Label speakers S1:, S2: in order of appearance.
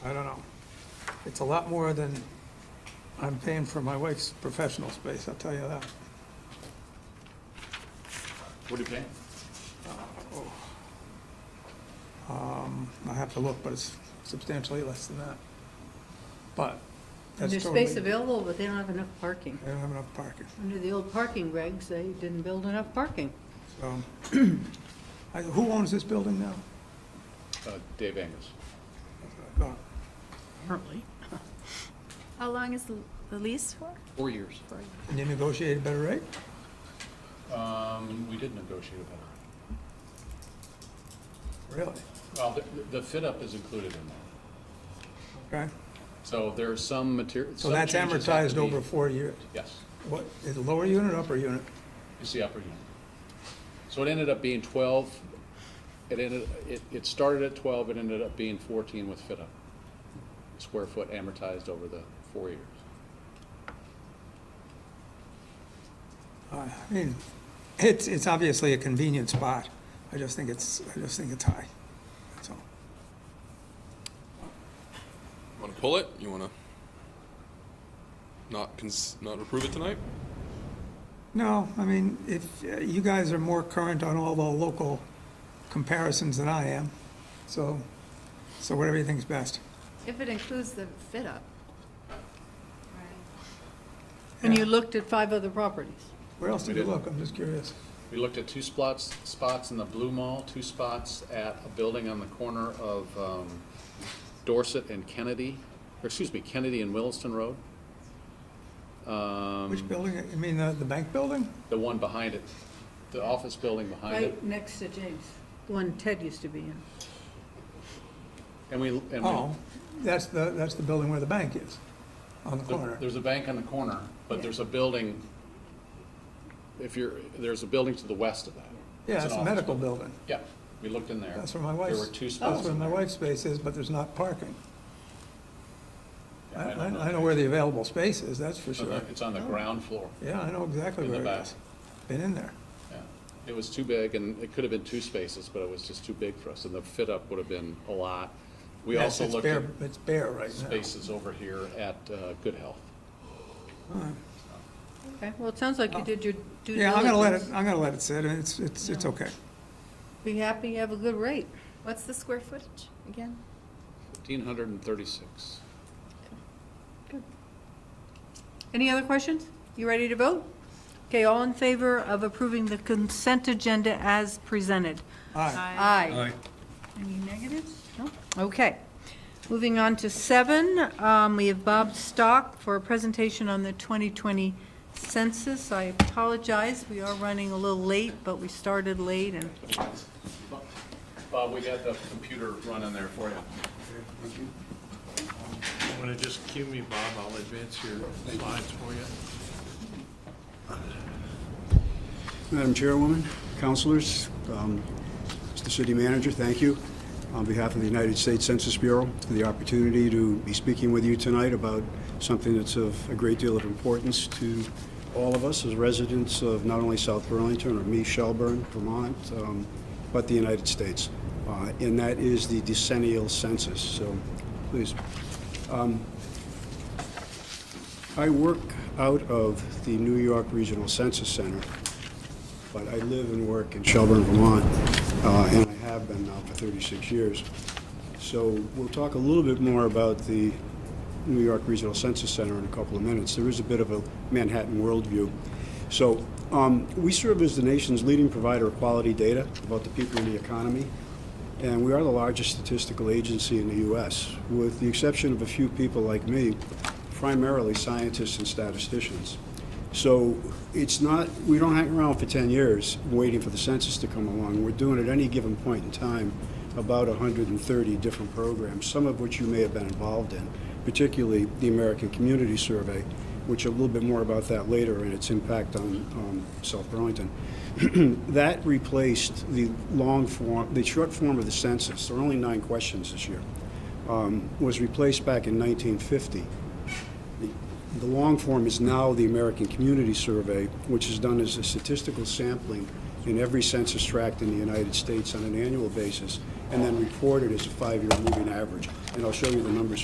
S1: It's a lot more than I'm paying for my wife's professional space, I'll tell you that.
S2: What are you paying?
S1: Um, I have to look, but it's substantially less than that. But that's
S3: There's
S1: totally,
S3: space
S1: they
S3: available, but they don't have enough parking.
S1: don't have enough parking,
S3: Under the old parking regs, they didn't build enough parking.
S1: so. I- Who owns this building now?
S2: Uh, Dave Angus.
S1: That's what I thought.
S3: Apparently.
S4: How long is the the lease for?
S2: Four years.
S1: And you negotiated a better rate?
S2: Um, we did negotiate a better.
S1: Really?
S2: Well, the, the fit up is included in that.
S1: Okay,
S2: So there are some material.
S1: so that's amortized over four years.
S2: Yes,
S1: What, is it lower unit, upper unit?
S2: it's the upper unit. So it ended up being twelve, it ended, it, it started at twelve, it ended up being fourteen with fit up. Square foot amortized over the four years.
S1: I mean, it's, it's obviously a convenient spot. I just think it's, I just think it's high, that's all.
S5: Want to pull it? You want to not cons- not approve it tonight?
S1: No, I mean, if, uh, you guys are more current on all the local comparisons than I am, so, so whatever you think's best.
S4: If it includes the fit up.
S3: And you looked at five other properties.
S1: Where else did
S2: We
S1: you
S2: did.
S1: look? I'm just curious.
S2: We looked at two spots, spots in the Blue Mall, two spots at a building on the corner of um, Dorset and Kennedy, or excuse me, Kennedy and Williston Road.
S1: Which
S2: Um,
S1: building, uh, you mean the, the bank building?
S2: The one behind it, the office building behind it.
S3: Right next to James. The one Ted used to be in.
S2: And we, and
S1: Oh,
S2: we,
S1: that's the, that's the building where the bank is, on the
S2: there-
S1: corner.
S2: there's a bank on the corner, but there's a building, if you're, there's a building to the west of that.
S1: Yeah,
S2: It's
S1: it's
S2: an
S1: a
S2: office
S1: medical
S2: building.
S1: building.
S2: Yeah, we looked in there.
S1: That's where my
S2: There
S1: wife's,
S2: were two
S1: that's
S2: spots
S1: where
S2: in
S1: my
S2: there.
S1: wife's space is, but there's not parking.
S2: Yeah,
S1: I,
S2: I
S1: I
S2: don't know.
S1: I know where the available space is, that's for
S2: It's on the-
S1: sure. Oh.
S2: It's on the ground floor.
S1: Yeah, I know exactly
S2: In the
S1: where it
S2: back.
S1: is. Been in there.
S2: Yeah, It was too big, and it could have been two spaces, but it was just too big for us, and the fit-up would have been a lot. We
S1: Yes,
S2: also
S1: it's
S2: looked at
S1: bare- It's bare right now.
S2: spaces over here at uh, Good Health.
S3: Okay, well, it sounds like you did your due diligence.
S1: Oh. Yeah, I'm gonna let it, I'm gonna let it sit, and it's, it's, it's okay.
S3: Be happy, you have a good rate.
S4: What's the square footage again?
S2: 1,536.
S3: Any other questions? You ready to vote? Okay, all in favor of approving the consent agenda as presented?
S1: Aye.
S3: Aye. Any negatives? No? Okay. Moving on to seven, um, we have Bob Stock for a presentation on the 2020 census. I apologize, we are running a little late, but we started late and
S2: Bob, we got the computer running there for you.
S6: You want to just cue me, Bob, I'll advance your slides for you.
S7: Madam Chairwoman, Councilors, um, Mr. City Manager, thank you. On behalf of the United States Census Bureau, for the opportunity to be speaking with you tonight about something that's of a great deal of importance to all of us as residents of not only South Burlington or me, Shelburne, Vermont, um, but the United States. Uh, And that is the decennial census, so please Um, I work out of the New York Regional Census Center, but I live and work in Shelburne, Vermont, uh, and I have been now for 36 years. So we'll talk a little bit more about the New York Regional Census Center in a couple of minutes. There is a bit of a Manhattan worldview. So um, we serve as the nation's leading provider of quality data about the people in the economy, and we are the largest statistical agency in the U.S., with the exception of a few people like me, primarily scientists and statisticians. So it's not, we don't hang around for 10 years waiting for the census to come along. We're doing at any given point in time about 130 different programs, some of which you may have been involved in, particularly the American Community Survey, which a little bit more about that later and its impact on um, South Burlington. That replaced the long form, the short form of the census, there are only nine questions this year, um, was replaced back in 1950. The- The long form is now the American Community Survey, which is done as a statistical sampling in every census tract in the United States on an annual basis, and then reported as a five-year moving average. And I'll show you the numbers